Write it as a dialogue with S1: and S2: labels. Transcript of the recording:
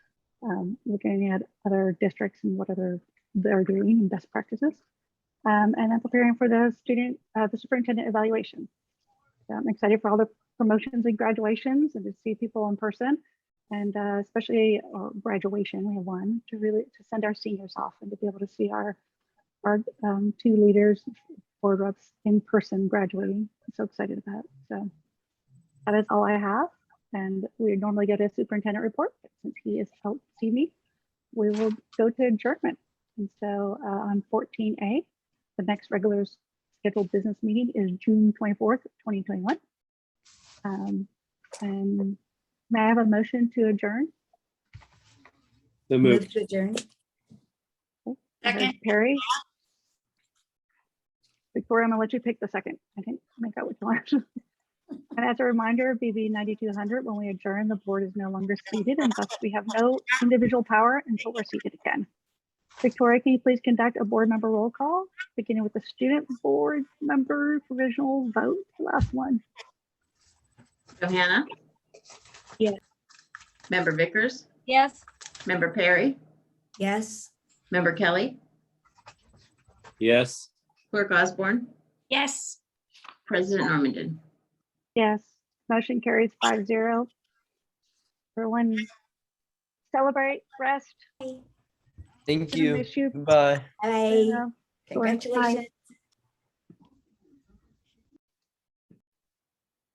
S1: um, looking at other districts and what other they're doing and best practices. Um, and then preparing for the student, uh, the superintendent evaluation. So I'm excited for all the promotions and graduations and to see people in person. And uh, especially or graduation, we have one to really to send our seniors off and to be able to see our our um, two leaders, board reps in person graduating. I'm so excited about. it. So that is all I have. And we normally get a superintendent report, but since he has helped see me, we will go to adjournment. And so uh, on 14A, the next regular scheduled business meeting is June 24th, 2021. Um, And may I have a motion to adjourn?
S2: So
S3: Move
S2: moved.
S3: to adjourn.
S1: Heard
S4: Second,
S1: Perry? Victoria, I'm gonna let you pick the second. I can make out which one. And as a reminder, BB 9200, when we adjourn, the board is no longer seated and thus we have no individual power until we're seated again. Victoria, can you please conduct a board member roll call, beginning with the student board member provisional vote, last one?
S4: Johanna?
S3: Yes.
S4: Member Vickers?
S5: Yes.
S4: Member Perry?
S3: Yes.
S4: Member Kelly?
S2: Yes.
S4: Clerk Osborne?
S5: Yes.
S4: President Normandin?
S1: Yes, motion carries five zero. Everyone celebrate, rest.
S6: Thank
S1: gonna
S6: you.
S1: miss you.
S6: Bye.
S3: Bye.
S1: Bye.
S3: Congratulations.